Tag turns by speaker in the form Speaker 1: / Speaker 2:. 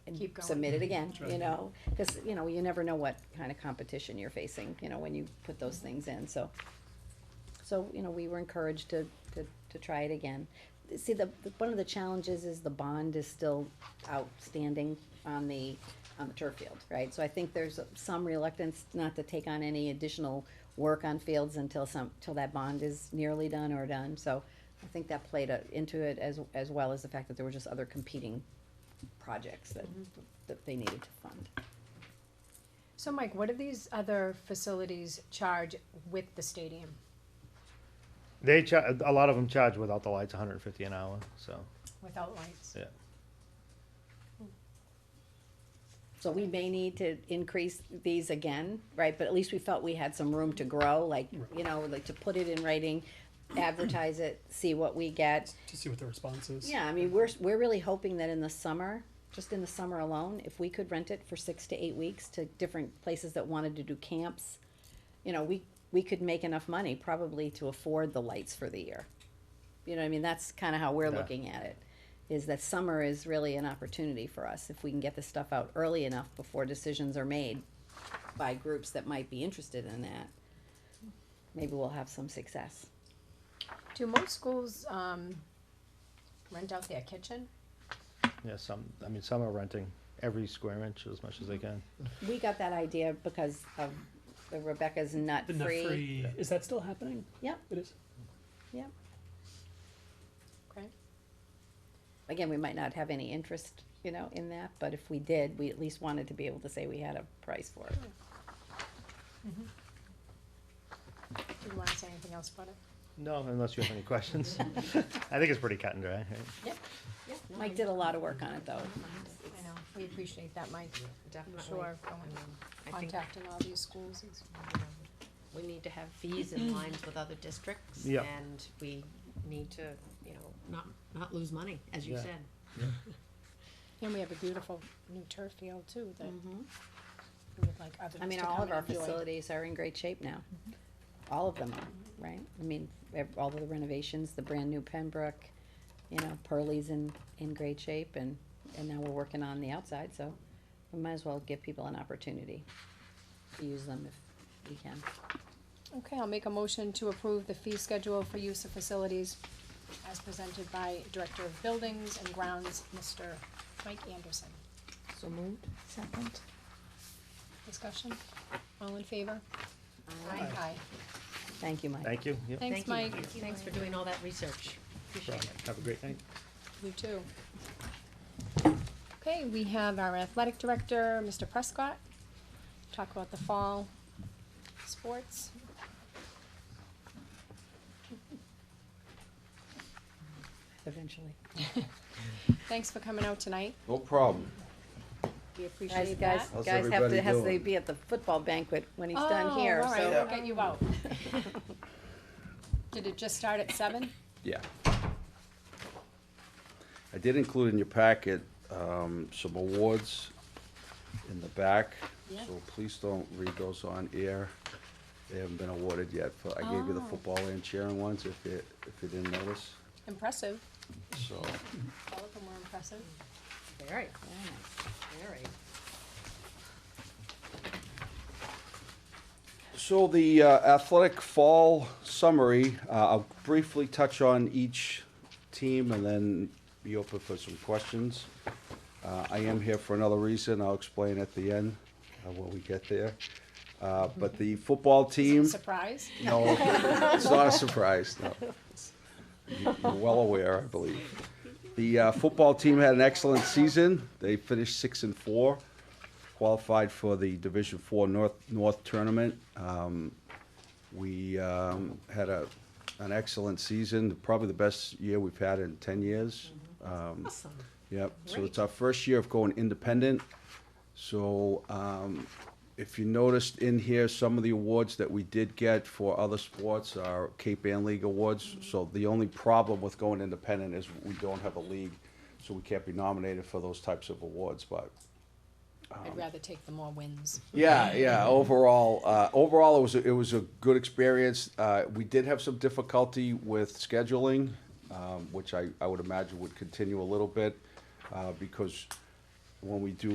Speaker 1: Keep going.
Speaker 2: submit it again,
Speaker 3: That's
Speaker 2: you
Speaker 3: right.
Speaker 2: know? Cause, you know, you never know what kind of competition you're facing, you know, when you put those things in, so. So, you know, we were encouraged to, to, to try it again. See, the, the- one of the challenges is the bond is still outstanding on the, on the turf field, right? So I think there's some reluctance not to take on any additional work on fields until some, till that bond is nearly done or done, so. I think that played a- into it as, as well as the fact that there were just other competing projects that, that they needed to fund.
Speaker 1: So Mike, what do these other facilities charge with the stadium?
Speaker 4: They cha- a lot of them charge without the lights 150 an hour. So
Speaker 1: without lights.
Speaker 4: yeah,
Speaker 2: So we may need to increase these again, right, but at least we felt we had some room to grow, like, you know, like to put it in writing, advertise it, see what we get.
Speaker 3: to see what the response is.
Speaker 2: Yeah, I mean, we're, we're really hoping that in the summer, just in the summer alone, if we could rent it for six to eight weeks to different places that wanted to do camps, you know, we, we could make enough money probably to afford the lights for the year. You know, what I mean, that's kinda how we're
Speaker 4: Yeah.
Speaker 2: looking at it, is that summer is really an opportunity for us, if we can get this stuff out early enough before decisions are made by groups that might be interested in that, maybe we'll have some success.
Speaker 1: Do most schools, um, rent out their kitchen?
Speaker 4: yeah. Some I mean some are renting every square inch as much as they can.
Speaker 2: We got that idea because of the Rebecca's nut
Speaker 3: The nut
Speaker 2: free.
Speaker 3: free, is that still happening?
Speaker 2: Yep,
Speaker 3: It is.
Speaker 2: yep.
Speaker 1: Okay.
Speaker 2: Again, we might not have any interest, you know, in that, but if we did, we at least wanted to be able to say we had a price for it.
Speaker 1: Do you wanna say anything else about it?
Speaker 4: No, unless you have any questions. I think it's pretty cut and dry. Right?
Speaker 2: Yep, yep. Mike did a lot of work on it though.
Speaker 1: I know, we appreciate that, Mike.
Speaker 5: Definitely.
Speaker 1: Sure,
Speaker 5: I
Speaker 1: going,
Speaker 5: mean, I think,
Speaker 1: contacting all these schools is.
Speaker 2: Mm.
Speaker 5: you know, we need to have fees in line with other districts.
Speaker 4: Yeah.
Speaker 5: And we need to, you know, not, not lose money, as you
Speaker 4: Yeah.
Speaker 5: said.
Speaker 1: And we have a beautiful new turf field too, that
Speaker 2: Mhm.
Speaker 1: we would like others Mm-hmm. to
Speaker 2: I mean, all
Speaker 1: come
Speaker 2: of our
Speaker 1: and enjoy. Mm-hmm.
Speaker 2: facilities are in great shape now. All of them, are, right? I mean, ev- all of the renovations, the brand new Pembroke, you know, Pearlie's in, in great shape and, and now we're working on the outside, so we might as well give people an opportunity to use them if we can.
Speaker 1: Okay, I'll make a motion to approve the fee schedule for use of facilities as presented by Director of Buildings and Grounds, Mr. Mike Anderson.
Speaker 5: So moved?
Speaker 1: Second. Discussion? All in favor? Aye. Aye.
Speaker 2: Thank you, Mike.
Speaker 4: Thank you. Yep.
Speaker 1: Thanks,
Speaker 5: Thank
Speaker 1: Mike.
Speaker 5: you. Thanks for doing all that research. Appreciate it.
Speaker 4: Have a great night.
Speaker 1: You too. Okay, we have our athletic director, Mr. Prescott, talk about the fall sports.
Speaker 2: Eventually.
Speaker 1: Thanks for coming out tonight.
Speaker 6: No problem.
Speaker 1: We
Speaker 2: Guys,
Speaker 1: appreciate
Speaker 2: guys,
Speaker 1: that.
Speaker 6: How's
Speaker 2: guys have
Speaker 6: everybody
Speaker 2: to, has to
Speaker 6: doing?
Speaker 2: be at the football banquet when he's
Speaker 1: Oh,
Speaker 2: done here,
Speaker 1: all right,
Speaker 2: so.
Speaker 1: we'll get you out. Did it just start at seven?
Speaker 6: Yeah. I did include in your packet, um, some awards in the back.
Speaker 1: Yeah.
Speaker 6: So please don't read those on air. They haven't been awarded yet, but I gave you the
Speaker 1: Oh.
Speaker 6: football and cheering ones if you, if you didn't notice,
Speaker 1: Impressive.
Speaker 6: so.
Speaker 1: All of them were impressive.
Speaker 5: Very,
Speaker 2: Yeah.
Speaker 5: very.
Speaker 6: So the uh, athletic fall summary, uh, I'll briefly touch on each team and then be open for some questions. Uh, I am here for another reason. I'll explain at the end uh, when we get there. Uh, But the football team.
Speaker 1: Surprise?
Speaker 6: No, it's not a surprise, no. You- You're well aware, I believe. The uh, football team had an excellent season. They finished six and four, qualified for the Division Four North, North Tournament. Um, We um, had a, an excellent season, probably the best year we've had in ten years. Um,
Speaker 5: Awesome.
Speaker 6: Yep, so
Speaker 5: Great.
Speaker 6: it's our first year of going independent. So, um, if you noticed in here, some of the awards that we did get for other sports are Cape Ann League awards. So the only problem with going independent is we don't have a league, so we can't be nominated for those types of awards, but.
Speaker 1: I'd rather take the more wins.
Speaker 6: Yeah, yeah. Overall, uh, overall, it was a, it was a good experience. Uh, we did have some difficulty with scheduling, um, which I, I would imagine would continue a little bit, uh, because when we do